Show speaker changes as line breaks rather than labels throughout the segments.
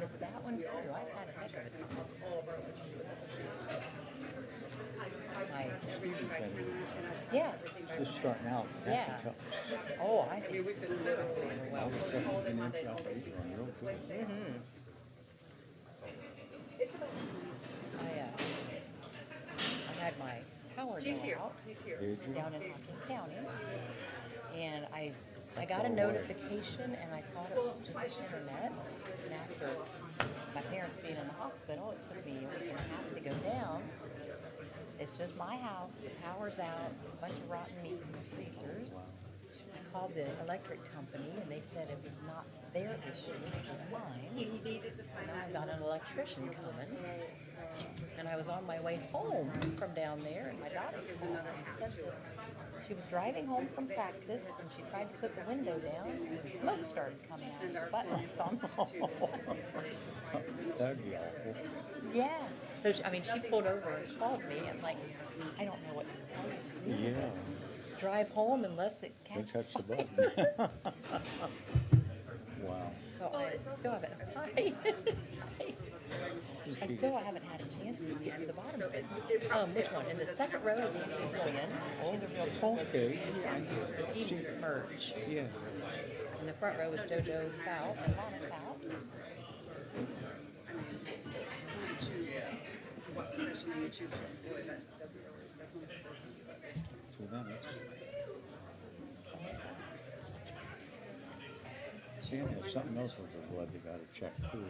was that one too, I've had a picture. Yeah,
Just starting out, that's
Yeah.
a tough.
oh, I think,
I was checking in there for operation, real good.
Mm-hmm. I, uh, I had my power bill
He's here,
out
he's here.
Did you?
down in Hocking County. And I, I got a notification and I thought it was just the internet. And after my parents being in the hospital, it took me a week and a half to go down. It's just my house, the power's out, a bunch of rotten meat in the freezers. I called the electric company and they said it was not their issue, it was mine.
He needed to sign
And I
that.
got an electrician coming. And I was on my way home from down there and my daughter called and said that she was driving home from practice and she tried to put the window down and the smoke started coming out of her butt lights on the
That'd be awful.
Yes. So, she, I mean, she pulled over and called me and like, I don't know what to tell you.
Yeah,
Drive home unless it
they
catches
touched the
fire.
button. Wow.
So Oh, I still haven't, I still haven't had a chance to get to the bottom of it. Um, which one? In the second row is Andy Brilliant,
Oh, Okay,
Eden Merge.
yeah.
In the front row is Jojo Fout, and Lana Fout.
You choose what position you choose from, boy, that doesn't really, that's not the difference, but
So then it's- Seeing there's something else with the blood, you gotta check too.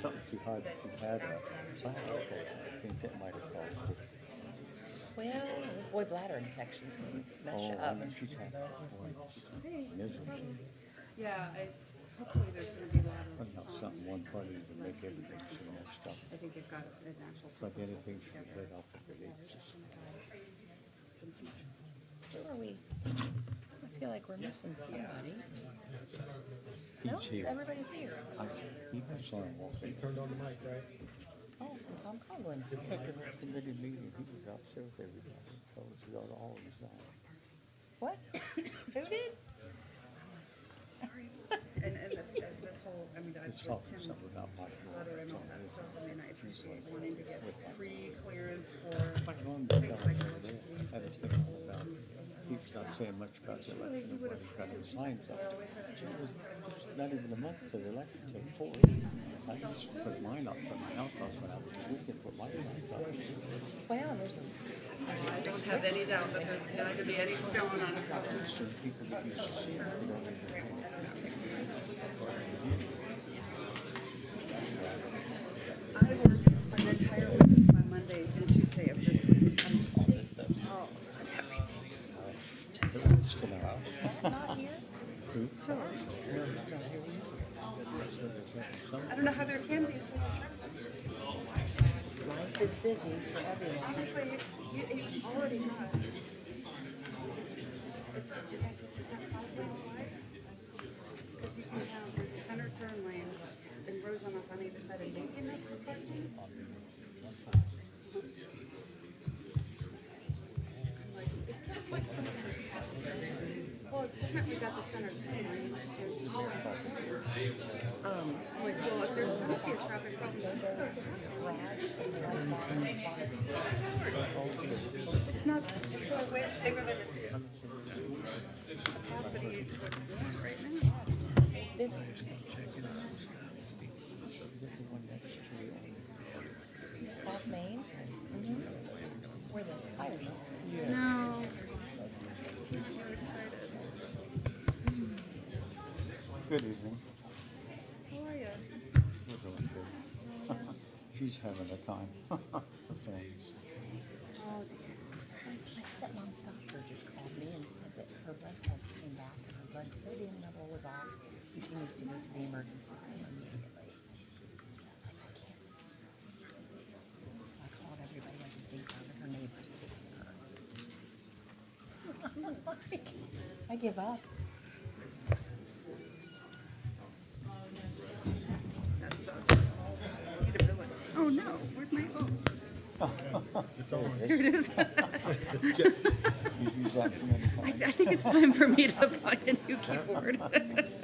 Something too high that you had a bladder infection. I think that might have caused it.
Well, boy, bladder infections can mess you
Oh, I
up.
know she's had, boy, she's had misery.
Yeah, I, hopefully there's gonna be a lot of,
Putting out something one party to make everything so messed up.
I think they've got an actual.
It's like anything from the head up, it's just
Who are we? I feel like we're missing somebody. No,
He's here.
everybody's here.
I said, he was on walking.
Turned on the mic, right?
Oh, and Tom Coughlin's
At the committee meeting, he was upset with everybody. Told us about all his life.
What? Who did?
And, and the- this whole, I mean, I,
It's
with
tough,
Tim's
something about my
letter and all that stuff, I mean, I appreciate wanting to get pre-clearance for
Like long ago, I was thinking about, he's not saying much about the election, and what he's got his signs up. It was just Not even a month for the election, it was four weeks. I just put mine up for my house, that's when I was looking for my signs up.
Well, and there's a,
I don't have any doubt that there's not gonna be any stone on the cover.
So people get used to seeing it, they don't even know.
I worked an entire week on Monday and Tuesday of this week. I'm just this, oh, and everything. Just so
It's still out.
is Matt not here?
So,
Yeah, he's not here with us. So there's nothing- some-
I don't know how there can be until you
Life is busy for
try.
everyone.
Obviously, you, you, you already have. It's, you guys, is that five lanes wide? Because you can have, there's a center turn lane and rows on off on either side of Yankee Neck for parking. I'm like, is that like some- Well, it's different, we got the center turn lane. There's- Like, well, if there's gonna be a traffic problem, those cars are-
Brad, it's right by the bottom.
It's not, it's still way bigger than its capacity right now.
It's busy. South Main? Mm-hmm. Where the fire is.
No. We're excited.
Good evening.
How are you?
We're doing good. She's having a time. Thanks.
Oh dear.
My stepmom's doctor just called me and said that her blood test came back and her blood sodium level was off. and She needs to go to the emergency room immediately. Like, I can't miss this. So I called everybody I could think of and her neighbors taking her. Like, I give up.
That sucks. Need a billet. Oh no, where's my, oh,
It's on.
here it is.
You've used that too many
I
times.
think it's time for me to buy a new keyboard. Oh,